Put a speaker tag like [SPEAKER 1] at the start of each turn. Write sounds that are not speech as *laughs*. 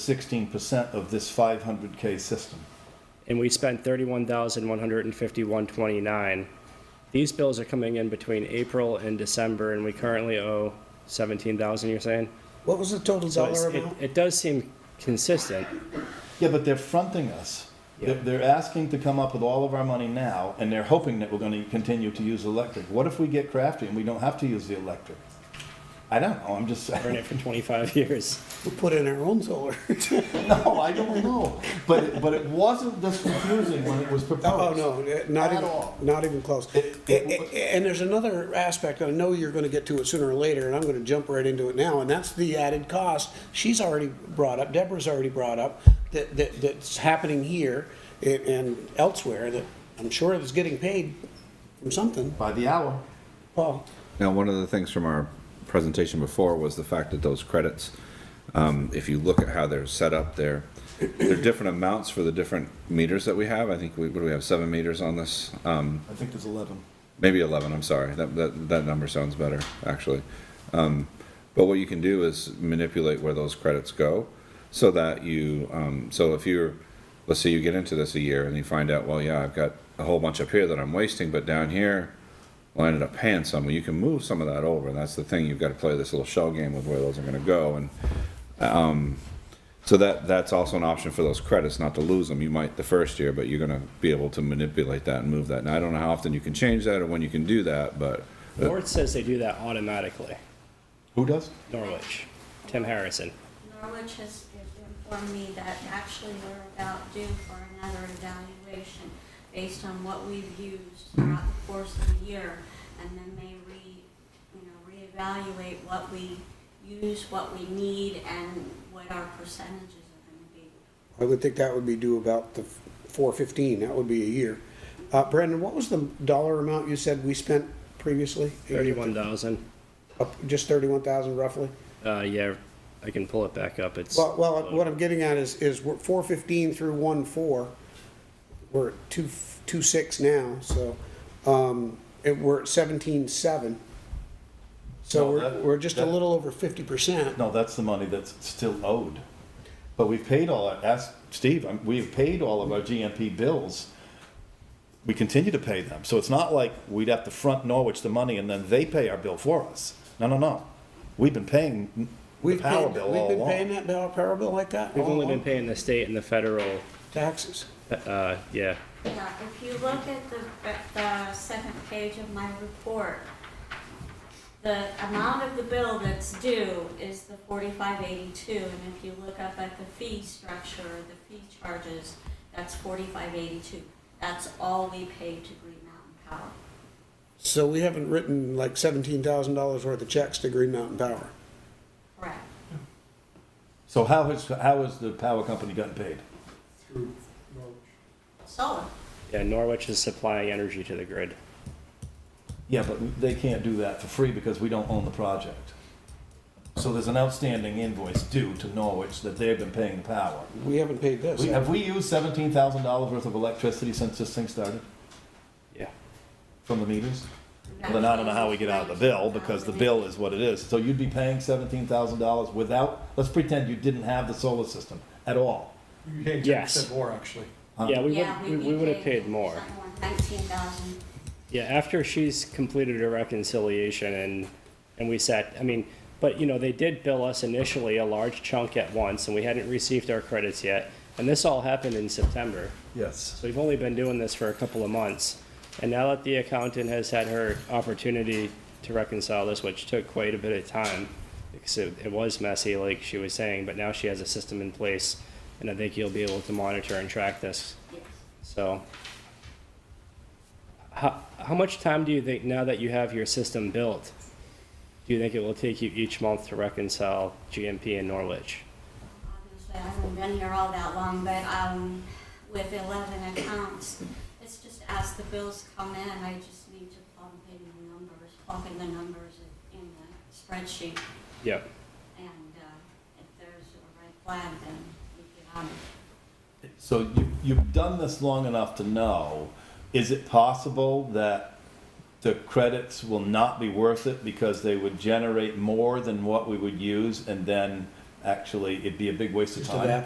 [SPEAKER 1] sixteen percent of this five hundred K system.
[SPEAKER 2] and we spent thirty-one thousand one hundred and fifty-one twenty-nine. These bills are coming in between April and December, and we currently owe seventeen thousand, you're saying?
[SPEAKER 3] What was the total
[SPEAKER 2] So it's-
[SPEAKER 3] dollar
[SPEAKER 2] it-
[SPEAKER 3] amount?
[SPEAKER 2] It does seem consistent,
[SPEAKER 1] Yeah, but they're fronting us. They're, they're asking to come up with all of our money now, and they're hoping that we're gonna continue to use electric. What if we get crafty and we don't have to use the electric? I don't know, I'm just
[SPEAKER 2] earn
[SPEAKER 1] saying.
[SPEAKER 2] it for twenty-five *laughs* years.
[SPEAKER 3] We put in our own *laughs* solar.
[SPEAKER 1] *laughs* No, I don't know. But, it- but it wasn't this confusing when it was
[SPEAKER 3] Oh,
[SPEAKER 1] proposed.
[SPEAKER 3] no, eh, not
[SPEAKER 1] At
[SPEAKER 3] even,
[SPEAKER 1] all.
[SPEAKER 3] not even close.
[SPEAKER 1] It-
[SPEAKER 3] Eh, eh, eh, And there's another aspect, I know you're gonna get to it sooner or later, and I'm gonna jump right into it now, and that's the added cost. She's already brought up, Deborah's already brought up, that, that, that's happening here and- and elsewhere, that I'm sure is getting paid from something.
[SPEAKER 1] By the hour.
[SPEAKER 3] Paul,
[SPEAKER 4] Now, one of the things from our presentation before was the fact that those credits, um, if you look at how they're set up, they're, they're different amounts for the different meters that we have. I think we, what do we have, seven meters on this? Um,
[SPEAKER 1] I think there's eleven.
[SPEAKER 4] maybe 11, I'm sorry. That, that, that number sounds better, actually. Um, but what you can do is manipulate where those credits go so that you, um, so if you're, let's say you get into this a year and you find out, well, yeah, I've got a whole bunch up here that I'm wasting, but down here, well, I ended up paying some. Well, you can move some of that over. And that's the thing. You've got to play this little shell game with where those are going to go. And um, so that that's also an option for those credits, not to lose them. You might the first year, but you're gonna be able to manipulate that and move that. Now I don't know how often you can change that or when you can do that, but
[SPEAKER 2] North says they do that automatically,
[SPEAKER 1] Who does?
[SPEAKER 2] Norwich, Tim Harrison.
[SPEAKER 5] Norwich has informed me that actually we're about due for another evaluation based on what we've used throughout the course of the year, and then they re, you know, reevaluate what we use, what we need, and what our percentages are gonna be.
[SPEAKER 3] I would think that would be due about the four fifteen, that would be a year. Uh, Brandon, what was the dollar amount you said we spent previously?
[SPEAKER 2] Thirty-one thousand,
[SPEAKER 3] Up- Just thirty-one thousand roughly?
[SPEAKER 2] uh, yeah, I can pull it back up, it's.
[SPEAKER 3] Well, well, what I'm getting at is, is we're four fifteen through one four, we're at two, two six now, so, um, it, we're at seventeen seven. So
[SPEAKER 1] No,
[SPEAKER 3] we're,
[SPEAKER 1] that-
[SPEAKER 3] we're just a
[SPEAKER 1] that-
[SPEAKER 3] little over fifty percent.
[SPEAKER 1] No, that's the money that's still owed. But we've paid all, our- ask Steve, I'm- we've paid all of our GMP bills. We continue to pay them. So it's not like we'd have to front Norwich the money and then they pay our bill for us. No, no, no. We've been paying the
[SPEAKER 3] We've
[SPEAKER 1] power
[SPEAKER 3] paid,
[SPEAKER 1] bill
[SPEAKER 3] we've
[SPEAKER 1] all
[SPEAKER 3] been paying
[SPEAKER 1] along.
[SPEAKER 3] that bill, power bill like that?
[SPEAKER 2] We've
[SPEAKER 3] all
[SPEAKER 2] only been
[SPEAKER 3] along?
[SPEAKER 2] paying the state and the federal,
[SPEAKER 3] Taxes.
[SPEAKER 2] uh, yeah,
[SPEAKER 5] Yeah, if you look at the, at the second page of my report, the amount of the bill that's due is the forty-five eighty-two, and if you look up at the fee structure, the fee charges, that's forty-five eighty-two. That's all we pay to Green Mountain Power.
[SPEAKER 3] So we haven't written like seventeen thousand dollars worth of checks to Green Mountain Power.
[SPEAKER 5] Correct.
[SPEAKER 1] So how has, how has the power company gotten paid?
[SPEAKER 5] Solar.
[SPEAKER 2] yeah, Norwich is supplying energy to the grid.
[SPEAKER 1] Yeah, but they can't do that for free because we don't own the project. So there's an outstanding invoice due to Norwich that they've been paying the power.
[SPEAKER 3] We haven't paid this.
[SPEAKER 1] We- Have we used seventeen thousand dollars worth of electricity since this thing started
[SPEAKER 2] Yeah.
[SPEAKER 1] from the meters? Well, then I don't know how we get out of the bill, because the bill is what it is. So you'd be paying seventeen thousand dollars without, let's pretend you didn't have the solar system at all.
[SPEAKER 6] You paid
[SPEAKER 2] Yes.
[SPEAKER 6] 10% more, actually.
[SPEAKER 2] Yeah, we would,
[SPEAKER 5] Yeah,
[SPEAKER 2] we we would have paid more.
[SPEAKER 5] Nineteen thousand.
[SPEAKER 2] Yeah, after she's completed her reconciliation and, and we sat, I mean, but, you know, they did bill us initially a large chunk at once, and we hadn't received our credits yet. And this all happened in September,
[SPEAKER 1] Yes.
[SPEAKER 2] so we've only been doing this for a couple of months. And now that the accountant has had her opportunity to reconcile this, which took quite a bit of time, because it, it was messy, like she was saying, but now she has a system in place, and I think you'll be able to monitor and track this
[SPEAKER 5] Yes.
[SPEAKER 2] so, how, how much time do you think, now that you have your system built, do you think it will take you each month to reconcile GMP and Norwich?
[SPEAKER 5] Obviously, I haven't been here all that long, but, um, with eleven accounts, it's just as the bills come in, I just need to plug in the numbers, plug in the numbers in the spreadsheet,
[SPEAKER 2] Yep.
[SPEAKER 5] and, uh, if there's a red flag, then we get on it.
[SPEAKER 1] So you, you've done this long enough to know, is it possible that the credits will not be worth it because they would generate more than what we would use and then actually, it'd be a big waste of
[SPEAKER 3] Just a
[SPEAKER 1] time.
[SPEAKER 3] vap-